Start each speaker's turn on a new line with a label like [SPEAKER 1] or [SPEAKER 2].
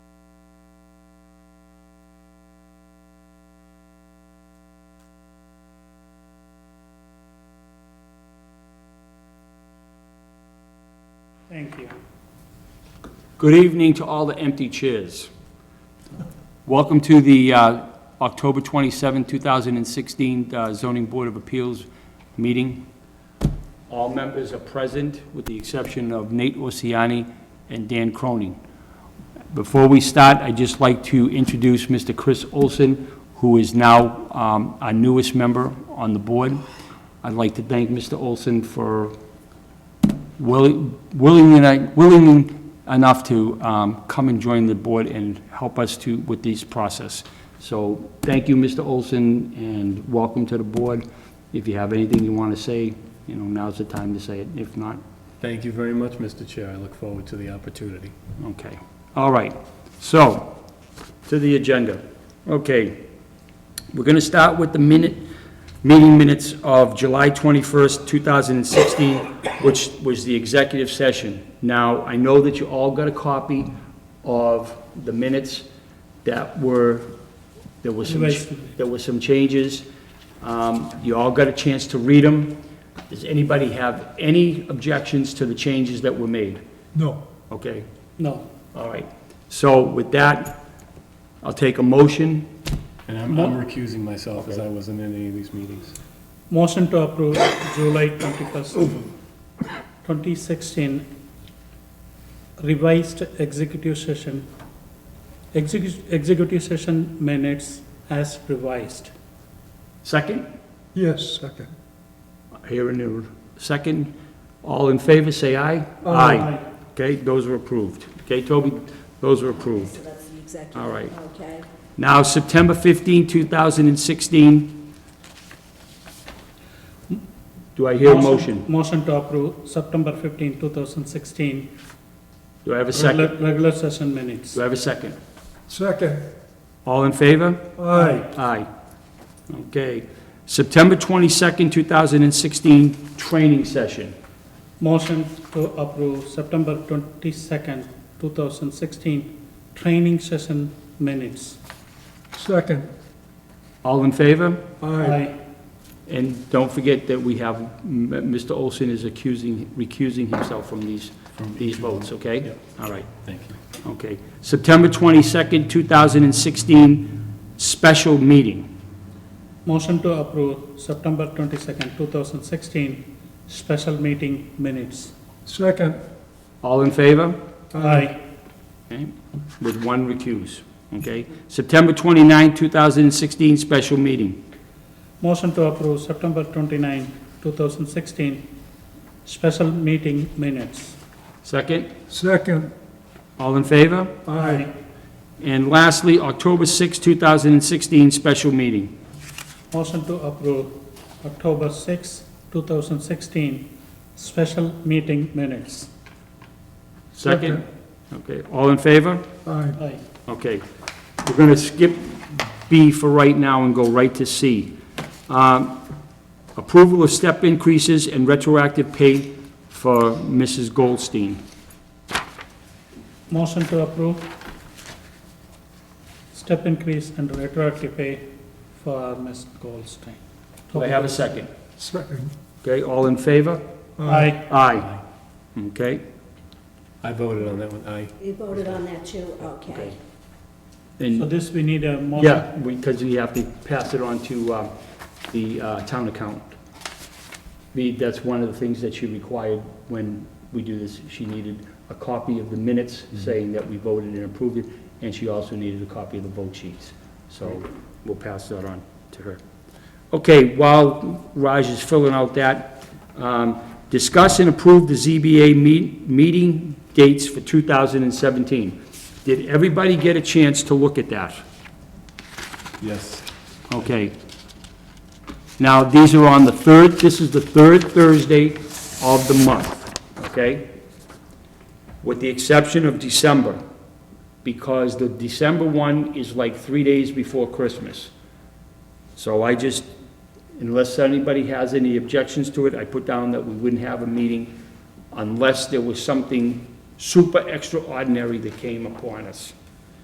[SPEAKER 1] you.
[SPEAKER 2] Good evening to all the empty chairs. Welcome to the uh, October 27, 2016 uh, Zoning Board of Appeals meeting. All members are present, with the exception of Nate Ossiani and Dan Cronin. Before we start, I'd just like to introduce Mr. Chris Olson, who is now um, our newest member on the board. I'd like to thank Mr. Olson for willing, willing and- willing enough to um, come and join the board and help us to, with this process. So thank you, Mr. Olson, and welcome to the board. If you have anything you want to say, you know, now's the time to say it. If not,
[SPEAKER 3] Thank you very much, Mr. Chair. I look forward to the opportunity.
[SPEAKER 2] Okay, all right. So, to the agenda. Okay, we're going to start with the minute, meeting minutes of July 21st, 2016, which was the executive session. Now, I know that you all got a copy of the minutes that were, there was some, there were some changes. Um, You all got a chance to read them. Does anybody have any objections to the changes that were made?
[SPEAKER 3] No.
[SPEAKER 2] Okay?
[SPEAKER 1] No.
[SPEAKER 2] All right, so with that, I'll take a motion.
[SPEAKER 3] And I'm I'm recusing myself as I wasn't in any of these meetings.
[SPEAKER 1] Motion to approve July twenty-first, twenty sixteen revised executive session, execu- executive session minutes as revised.
[SPEAKER 2] Second?
[SPEAKER 4] Yes, second.
[SPEAKER 2] Here and there, second. All in favor, say aye. Okay, those are approved. Okay, Toby, those are approved.
[SPEAKER 5] So that's the executive.
[SPEAKER 2] All right.
[SPEAKER 5] Okay.
[SPEAKER 2] Now, September 15, 2016. Do I hear a motion?
[SPEAKER 1] Motion to approve September fifteenth, two thousand sixteen.
[SPEAKER 2] Do I have a second?
[SPEAKER 1] Regular session minutes.
[SPEAKER 2] Do I have a second?
[SPEAKER 4] Second.
[SPEAKER 2] All in favor?
[SPEAKER 4] Aye.
[SPEAKER 2] Aye. Okay. September 22nd, 2016, training session.
[SPEAKER 1] Motion to approve September twenty-second, two thousand sixteen training session minutes.
[SPEAKER 4] Second.
[SPEAKER 2] All in favor?
[SPEAKER 4] Aye.
[SPEAKER 2] And don't forget that we have, M- Mr. Olson is accusing, recusing himself from these,
[SPEAKER 3] From
[SPEAKER 2] these votes, okay?
[SPEAKER 3] Yep.
[SPEAKER 2] All right,
[SPEAKER 3] Thank you.
[SPEAKER 2] okay. September 22nd, 2016, special meeting.
[SPEAKER 1] Motion to approve September twenty-second, two thousand sixteen, special meeting minutes.
[SPEAKER 4] Second.
[SPEAKER 2] All in favor?
[SPEAKER 1] Aye.
[SPEAKER 2] Okay, with one recuse, okay? September 29th, 2016, special meeting.
[SPEAKER 1] Motion to approve September twenty-nine, two thousand sixteen, special meeting minutes.
[SPEAKER 2] Second,
[SPEAKER 4] Second.
[SPEAKER 2] all in favor?
[SPEAKER 4] Aye.
[SPEAKER 2] And lastly, October 6th, 2016, special meeting.
[SPEAKER 1] Motion to approve October sixth, two thousand sixteen, special meeting minutes.
[SPEAKER 2] Second? Okay, all in favor?
[SPEAKER 4] Aye.
[SPEAKER 1] Aye.
[SPEAKER 2] Okay, we're going to skip B for right now and go right to C. Um, Approval of step increases and retroactive pay for Mrs. Goldstein.
[SPEAKER 1] Motion to approve step increase and retroactive pay for Ms. Goldstein.
[SPEAKER 2] Do I have a second?
[SPEAKER 4] Second.
[SPEAKER 2] Okay, all in favor?
[SPEAKER 1] Aye.
[SPEAKER 2] Aye. Okay,
[SPEAKER 3] I voted on that one, aye.
[SPEAKER 5] You voted on that too? Okay.
[SPEAKER 1] So
[SPEAKER 2] and,
[SPEAKER 1] this, we need a motion.
[SPEAKER 2] yeah, because we have to pass it on to uh, the uh, town accountant. The- That's one of the things that she required when we do this. She needed a copy of the minutes saying that we voted and approved it, and she also needed a copy of the vote sheets. So we'll pass that on to her. Okay, while Raj is filling out that, um, discuss and approve the ZBA meet- meeting dates for 2017. Did everybody get a chance to look at that?
[SPEAKER 3] Yes.
[SPEAKER 2] Okay. Now, these are on the third, this is the third Thursday of the month, okay? With the exception of December, because the December one is like three days before Christmas. So I just, unless anybody has any objections to it, I put down that we wouldn't have a meeting unless there was something super extraordinary that came upon us.